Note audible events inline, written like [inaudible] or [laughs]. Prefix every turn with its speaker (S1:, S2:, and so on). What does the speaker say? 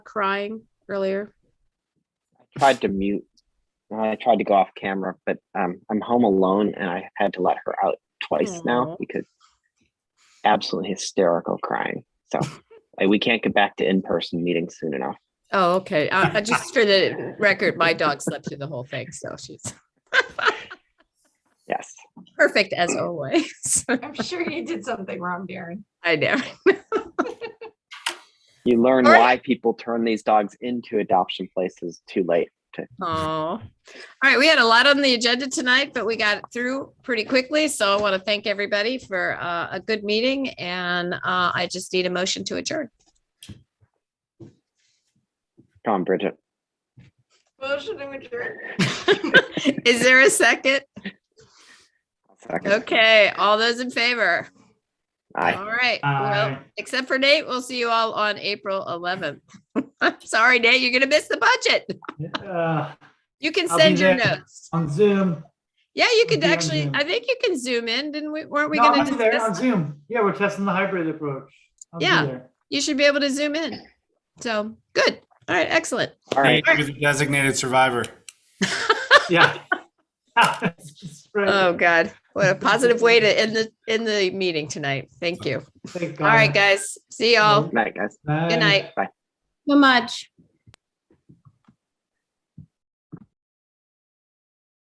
S1: crying earlier?
S2: tried to mute. I tried to go off camera, but um, I'm home alone and I had to let her out twice
S1: Aw.
S2: now because absolutely hysterical crying.
S1: [laughs]
S2: So like, we can't get back to in person meetings soon enough.
S1: Oh, okay. I, I just for the record, my dog slept through the whole thing, so she's
S2: Yes.
S1: perfect as always. [laughs]
S3: I'm sure you did something wrong, Darren.
S1: I know.
S2: You learn
S1: All right.
S2: why people turn these dogs into adoption places too late.
S1: Oh, all right. We had a lot on the agenda tonight, but we got through pretty quickly. So I want to thank everybody for uh, a good meeting, and uh, I just need a motion to adjourn. [laughs]
S2: Come on, Bridget.
S3: Motion to adjourn.
S1: Is there a second?
S2: I'll Second.
S1: Okay, all those in favor.
S2: Aye.
S1: All right.
S4: Uh,
S1: Well, except for Nate, we'll see you all on April 11th. [laughs] I'm sorry, Nate, you're going to miss the budget.
S4: Uh,
S1: You can
S4: I'll be
S1: send your
S4: there.
S1: notes.
S4: On Zoom.
S1: Yeah, you could
S4: be on
S1: actually,
S4: Zoom.
S1: I think you can zoom in, didn't we? Weren't we
S4: No, I'll
S1: going
S4: be
S1: to
S4: there on
S1: discuss?
S4: Zoom. Yeah, we're testing the hybrid approach. I'll be
S1: Yeah.
S4: there.
S1: You should be able to zoom in. So, good. All right, excellent.
S2: All right.
S5: You're the Designated
S1: [laughs]
S5: survivor.
S4: Yeah. [laughs]
S1: Oh,
S4: Right.
S1: God. What a positive way to end the, end the meeting tonight. Thank you.
S4: Thank
S1: All right,
S4: God.
S1: guys. See y'all.
S2: Night, guys.
S1: Good
S4: Bye.
S1: night.
S2: Bye.
S1: So much.